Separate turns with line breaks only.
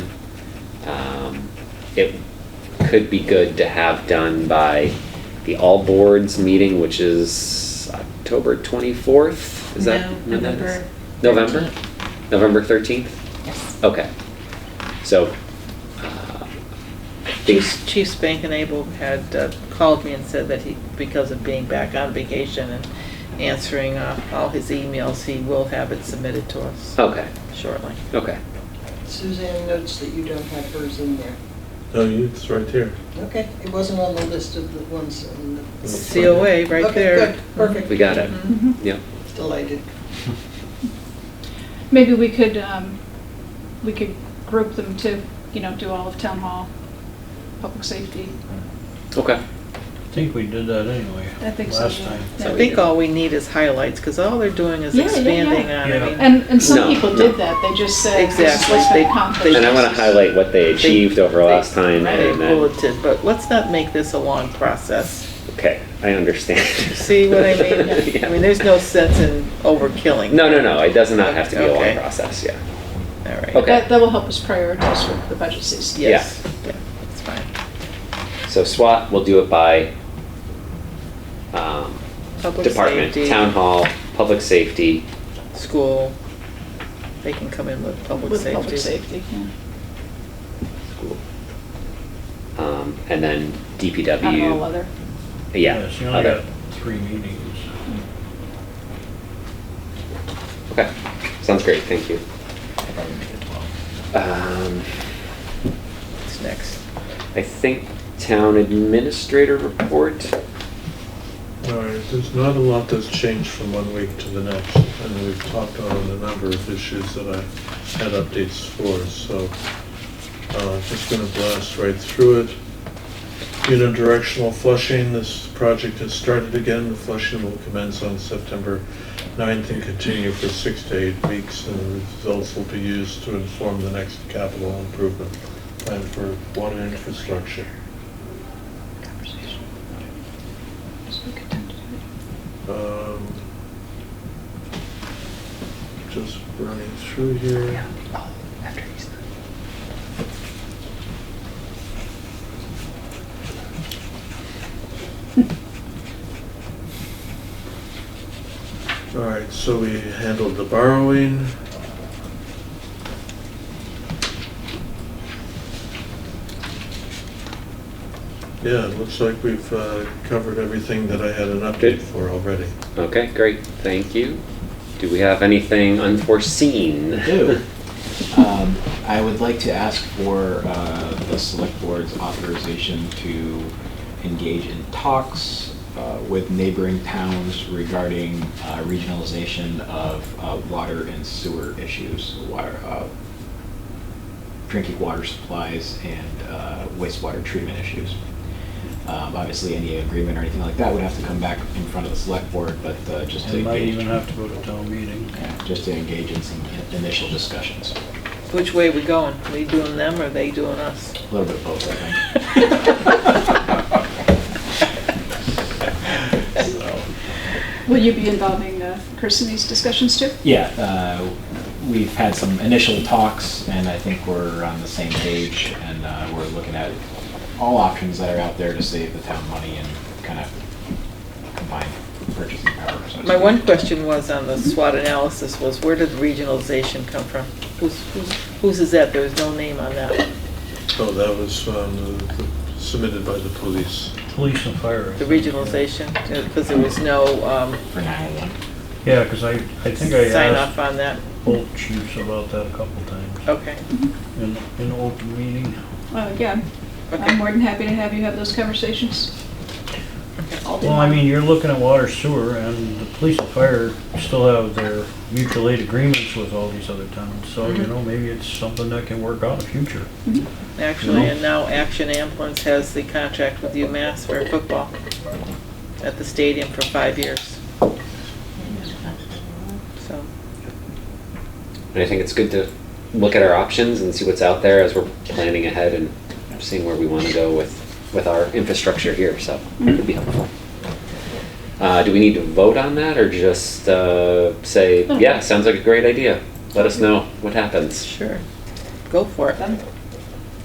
Um, it could be good to have done by the all boards meeting, which is October 24th? Is that?
No,
when that is?
November
November? November 13th?
Yes.
Okay. So, uh, things,
Chiefs, Chiefs Bank and Abel had uh, called me and said that he, because of being back on vacation and answering uh, all his emails, he will have it submitted to us
okay,
shortly.
okay.
Suzanne notes that you don't have hers in there.
No, you- it's right here.
Okay, it wasn't on the list of the ones in the.
COA right there.
Okay, good, perfect.
We got it.
Mm-hmm.
Mm-hmm.
Yep.
Delighted.
Maybe we could, um, we could group them to, you know, do all of town hall, public safety.
Okay.
I think we did that anyway.
I think so,
Last
yeah.
time.
I think all we need is highlights, because all they're doing is
Yeah, yeah, yeah.
expanding on,
Yeah.
I mean,
And, and
No,
some people
no.
did that, they just said, this is
Exactly.
what
They-
that conference
And I want to
is.
highlight what they achieved over last time
they
and then,
bulleted, but let's not make this a long process.
okay, I understand.
See what I mean?
Yeah.
I mean, there's no sense in overkilling.
No, no, no, it does not have to be a long
Okay.
process, yeah.
All right.
Okay.
That, that will help us prioritize for the budget season.
Yes, yeah, that's fine.
So SWAT, we'll do it by um,
Public
department,
safety,
town hall, public safety.
School, they can come in with public
With public
safety.
safety, yeah.
school, um, And then DPW.
Kind of all other.
Yeah.
Yes, you only
other.
got three meetings.
Okay, sounds great, thank you. Um,
What's next?
I think town administrator report.
All right, there's not a lot that's changed from one week to the next, and we've talked on a number of issues that I had updates for, so uh, just gonna blast right through it. Unidirectional flushing, this project has started again, the flushing will commence on September 9th and continue for six to eight weeks, and the results will be used to inform the next capital improvement plan for water infrastructure. Um, Just running through here. All right, so we handled the borrowing. Yeah, it looks like we've uh, covered everything that I had an update
Good.
for already.
Okay, great, thank you. Do we have anything unforeseen?
We do. Um, I would like to ask for uh, the select board's authorization to engage in talks uh, with neighboring towns regarding uh, regionalization of uh, water and sewer issues, water, uh, drinking water supplies and uh, wastewater treatment issues. Um, Obviously, any agreement or anything like that would have to come back in front of the select board, but uh, just to
They might
engage.
even have to go to town meeting.
Yeah, Just to engage in some initial discussions.
Which way we going? We doing them or they doing us?
A little bit of both, I think.
Will you be involving uh, Chris in these discussions too?
Yeah, uh, we've had some initial talks, and I think we're on the same page, and uh, we're looking at all options that are out there to save the town money and kind of combine purchasing power. so to
My
speak.
one question was on the SWOT analysis was where did regionalization come from? Who's, who's- whose is that? There was no name on that one.
Oh, that was um, the- the- submitted by the police.
Police and fire. I
The
think, yeah.
regionalization, because there was no um,
For 911.
Yeah, because I, I think I
sign off
asked
on that.
both chiefs about that a couple times
Okay,
in, in open meeting.
Uh, yeah, I'm
okay.
more than happy to have you have those conversations. All the
Well, I
time.
mean, you're looking at water sewer and the police and fire still have their mutual aid agreements with all these other towns. So, you
Mhm.
know, maybe it's something that can work out in the future.
Actually, and now Action Ambulance has the contract with UMass for football at the stadium for five years. So,
And I think it's good to look at our options and see what's out there as we're planning ahead and seeing where we want to go with, with our infrastructure here, so it would be helpful. Uh, do we need to vote on that or just, uh, say, yeah, sounds like a great idea? Let us know what happens.
sure, go for it.
Done.